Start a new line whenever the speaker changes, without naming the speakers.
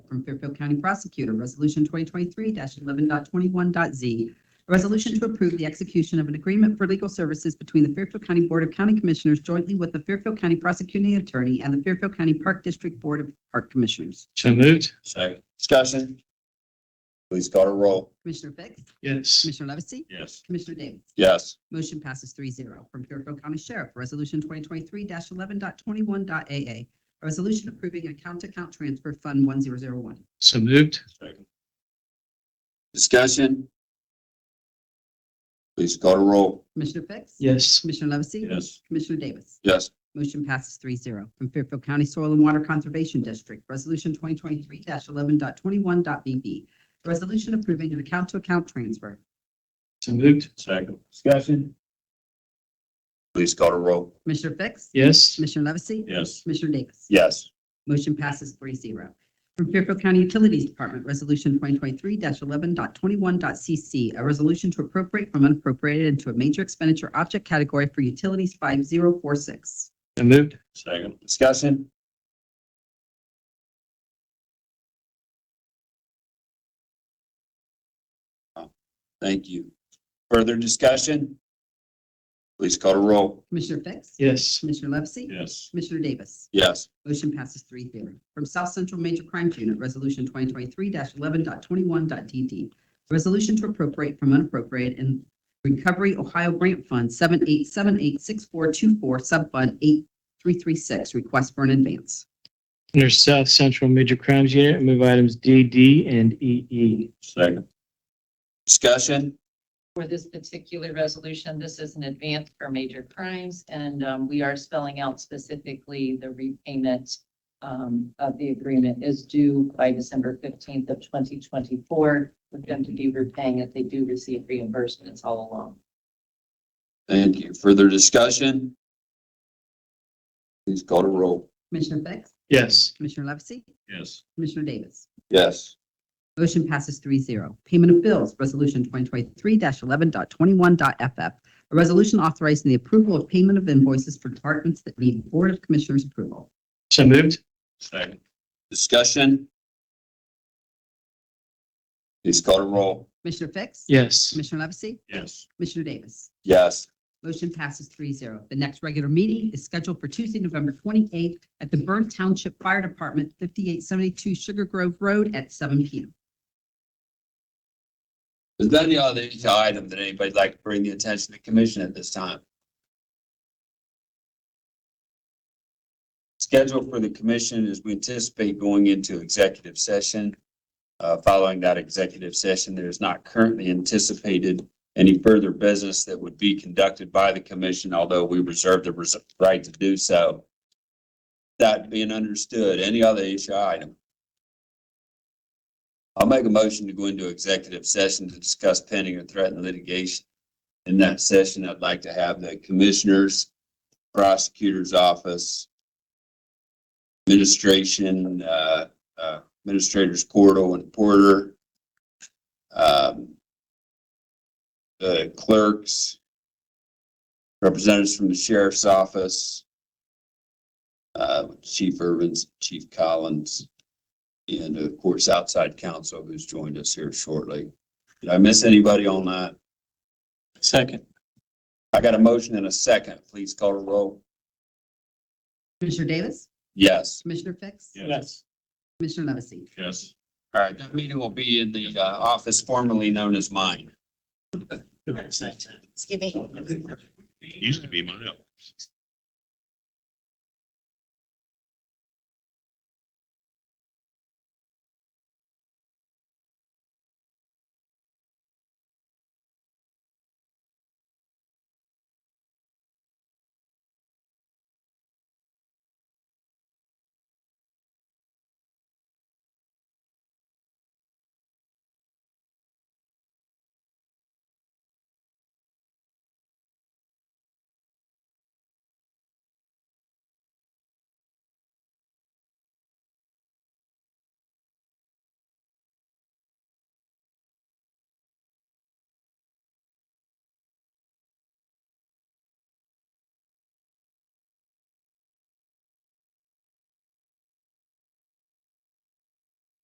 from Fairfield County Prosecutor, Resolution 2023-11.21.z. A resolution to approve the execution of an agreement for legal services between the Fairfield County Board of County Commissioners jointly with the Fairfield County Prosecuting Attorney and the Fairfield County Park District Board of Park Commissioners.
So moved.
Second. Discussion. Please call a roll.
Commissioner Fix?
Yes.
Commissioner Levesey?
Yes.
Commissioner Davis?
Yes.
Motion passes three zero. From Fairfield County Sheriff, Resolution 2023-11.21.a.a. A resolution approving account-to-account transfer Fund 1001.
So moved.
Second. Discussion. Please call a roll.
Commissioner Fix?
Yes.
Commissioner Levesey? Commissioner Davis?
Yes.
Motion passes three zero. From Fairfield County Soil and Water Conservation District, Resolution 2023-11.21.b.b. A resolution approving an account-to-account transfer.
So moved.
Second. Discussion. Please call a roll.
Commissioner Fix?
Yes.
Commissioner Levesey?
Yes.
Commissioner Davis?
Yes.
Motion passes three zero. From Fairfield County Utilities Department, Resolution 2023-11.21.c.c. A resolution to appropriate from unappropriated into a major expenditure object category for utilities 5046.
So moved.
Second. Discussion. Thank you. Further discussion? Please call to roll.
Commissioner Fix?
Yes.
Commissioner Levesey?
Yes.
Commissioner Davis?
Yes.
Motion passes three zero. From South Central Major Crimes Unit, Resolution 2023-11.21.d.d. A Resolution to appropriate from unappropriated in Recovery Ohio Grant Fund 78786424, Subfund 8336, request for an advance.
Under South Central Major Crimes Unit, I move items D, D, and E, E.
Second. Discussion?
for this particular resolution. This is an advance for major crimes, and um, we are spelling out specifically the repayment um, of the agreement is due by December fifteenth of twenty twenty-four. We're going to be repaying if they do receive reimbursements all along.
Thank you. Further discussion? Please call to roll.
Commissioner Fix?
Yes.
Commissioner Levesey?
Yes.
Commissioner Davis?
Yes.
Motion passes three zero. Payment of bills, Resolution 2023-11.21.f.f. A resolution authorizing the approval of payment of invoices for departments that need Board of Commissioners approval.
So moved.
Second. Discussion? Please call to roll.
Commissioner Fix?
Yes.
Commissioner Levesey?
Yes.
Commissioner Davis?
Yes.
Motion passes three zero. The next regular meeting is scheduled for Tuesday, November 28th at the Byrne Township Fire Department, 5872 Sugar Grove Road at seven PM.
Is there any other item that anybody'd like to bring the attention to the commission at this time? Schedule for the commission is we anticipate going into executive session. Uh, following that executive session, there is not currently anticipated any further business that would be conducted by the commission, although we reserve the res- right to do so. That being understood, any other issue item? I'll make a motion to go into executive session to discuss pending or threatened litigation. In that session, I'd like to have the commissioners, prosecutor's office, administration, uh, uh, administrators Cordell and Porter, um, the clerks, representatives from the sheriff's office, uh, Chief Irvins, Chief Collins, and of course, outside counsel who's joined us here shortly. Did I miss anybody on that? Second. I got a motion and a second. Please call a roll.
Commissioner Davis?
Yes.
Commissioner Fix?
Yes.
Commissioner Levesey?
Yes. All right, that meeting will be in the uh, office formerly known as mine.
Excuse me.
Used to be mine.